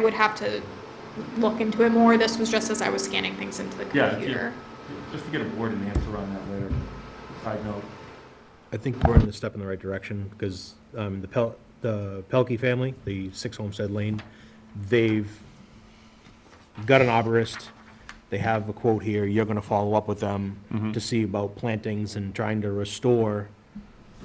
I would have to look into it more. This was just as I was scanning things into the Yeah, if you- computer. Just to get a board and answer on that later, side note. I think we're in a step in the right direction, because um, the Pel, the Pelkey family, the Six Homestead Lane, they've got an arborist, they have a quote here, you're gonna follow up with them to see about plantings and trying to restore,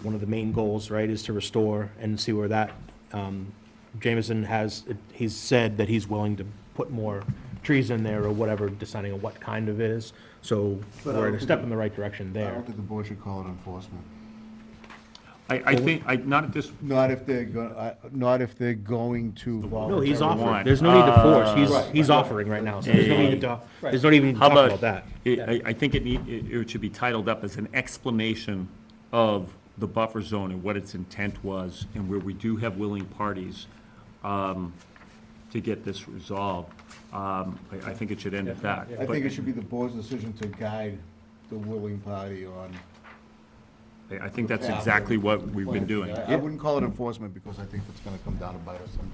one of the main goals, right, is to restore and see where that, um, Jameson has, he's said that he's willing to put more trees in there or whatever, deciding on what kind of it is, so But I we're in a don't step think- in the right direction I there. don't think the board should call it enforcement. I, I think, I, not at this, Not if they're, go- I- not if they're going to No, voluntarily. he's offering, want. Uh, there's no need to force, he's, Right. he's offering right now, so there's no need to, there's not even how talk about? about that. it- I, I think it need, it, it should be titled up as an explanation of the buffer zone and what its intent was, and where we do have willing parties, um, to get this resolved. Um, I, I think it should end at that. I think it should be the board's decision to guide the willing party on. But I, I think that's Yeah. exactly what we've been planting. doing. I I wouldn't call it enforcement because I think it's gonna come down to bite us someday.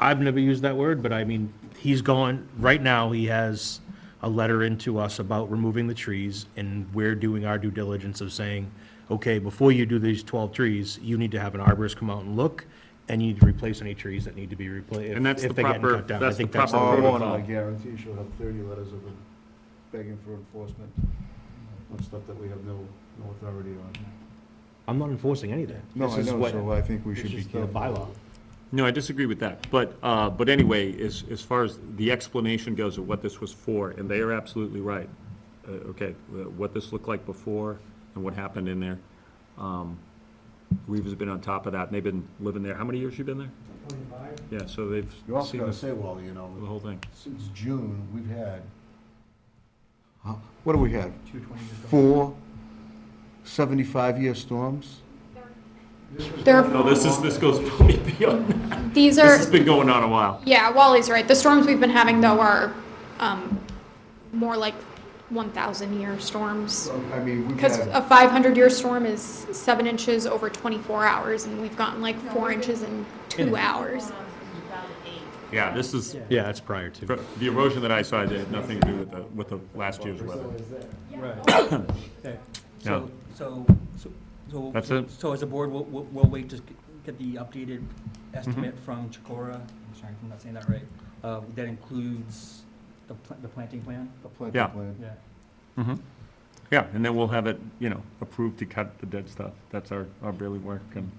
I've never used that word, but I mean, he's gone, right now, he has a letter into us about removing the trees, and we're doing our due diligence of saying, okay, before you do these twelve trees, you need to have an arborist come out and look, and you need to replace any trees that need to be replaced, And that's if the they're getting proper- cut down. I that's the think that's the proper Tomorrow proper. morning, protocol. I guarantee she'll have thirty letters of them begging for enforcement on stuff that we have no, no authority on. I'm not enforcing anything. No, This I is know, what- so I think we This should be is the careful. bylaw. No, I disagree with that, but, uh, but anyway, as, as far as the explanation goes of what this was for, and they are absolutely right. Uh, okay, uh, what this looked like before and what happened in there. Um, Reeves has been on top of that, and they've been living there, how many years you been there? Yeah, so they've You also seen gotta this, say, Wally, you know, the whole thing. since June, we've had, Huh, what do we have? Four 75-year storms? There, No, this is, this goes way beyond, these this are, has been going on a while. yeah, Wally's right. The storms we've been having though are, um, more like one thousand year storms. I mean, we've Because had, a five hundred year storm is seven inches over twenty-four hours and we've gotten like four inches in two hours. Yeah, this is, Yeah, it's prior to. the erosion that I saw had nothing to do with the, with the last year's weather. Right. Okay. Yeah. So, so, so- so. That's it. So as a board, we'll, we'll we'll wait to g- get the updated Mm-hmm. estimate from Chikora, I'm sorry if I'm not saying that right. Uh, That includes the pla- the planting plan? a planting Yeah. plan. Yeah. Mhm. Yeah, and then we'll have it, you know, approved to cut the dead stuff. That's our, our really work, and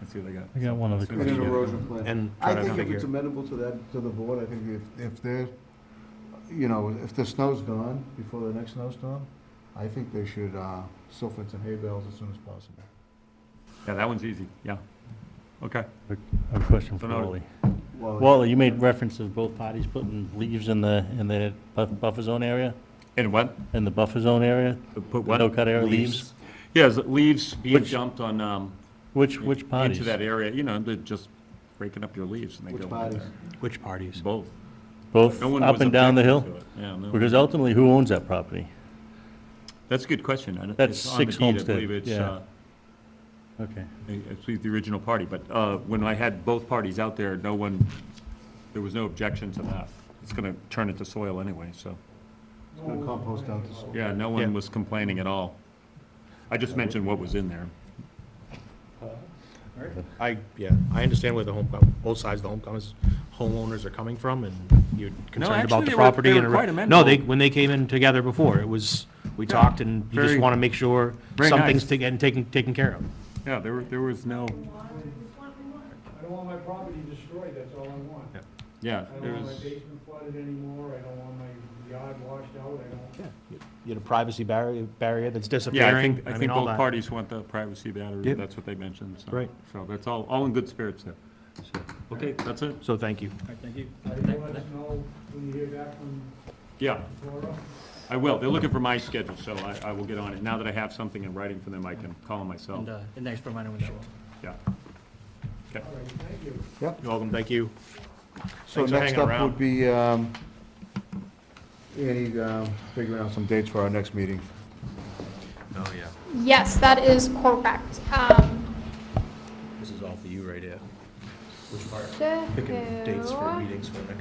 let's see what they got. I got one other So- And an erosion plan. And I try to think if it's figure. amenable to that, to the board, I think if, if they're, you know, if the snow's gone before the next snowstorm, I think they should, uh, silk fence and hay bales as soon as possible. Yeah, that one's easy, yeah. Okay, A question for Don't know. Wally. Well, Wally, you made reference to both parties putting leaves in the, in the buff- buffer zone area, and what? in the buffer zone area? Put the No-cut area leaves? Yes, leaves being Which- dumped on, um. Which, which parties? Into that area, you know, they're just breaking up your leaves and they Which go in parties? there. Which parties? Both. Both No one up was and down the hill? objecting to it. Yeah, no. Because ultimately, who owns that property? That's a good question. I don't- That's it's on the Six deed, I Homestead, believe it's, yeah. uh, Okay. It's the original party, but uh, when I had both parties out there, no one, there was no objection to that. It's going to turn into soil anyway, so, It's gonna compost down to soil. yeah, no Yeah. one was complaining at all. I just mentioned what was in there. I, yeah, I understand where the home, com- both sides of the homecomers, homeowners are coming from, and you're concerned actually, about they the were- property. they and were the re- quite No, amenable. they, when they came in together before, it was, we Yeah, talked, and you just very- want to make sure very something's nice. getting taken, taken care of. Yeah, there, were- there was no, I don't want my property destroyed, that's all I want. Yeah. yeah, I there don't want my was, basement flooded anymore, I don't want my yard washed out, I don't. You had a privacy barrier, barrier that's yeah, I disappearing, think, I I mean, think all both that. parties want the privacy battery, Yep. that's what they mentioned, so. Right. So that's all, all in good spirits there. So, Okay, that's it, So thank you. All right, thank you. I Thank- let us thank- know when you hear back from yeah. Laura. I will, they're looking for my schedule, so I, I will get on it. Now that I have something in writing for them, I can call them myself, And, uh, and thanks for reminding me that. Wally. yeah. All right, thank you. You're welcome, thank you. So Thanks for next hanging up around. would be, um, Annie, um, figuring out some dates for our next meeting. Oh, yeah. Yes, that is correct. Um, This is all for you right here. Which part? Picking Picking dates for meetings for next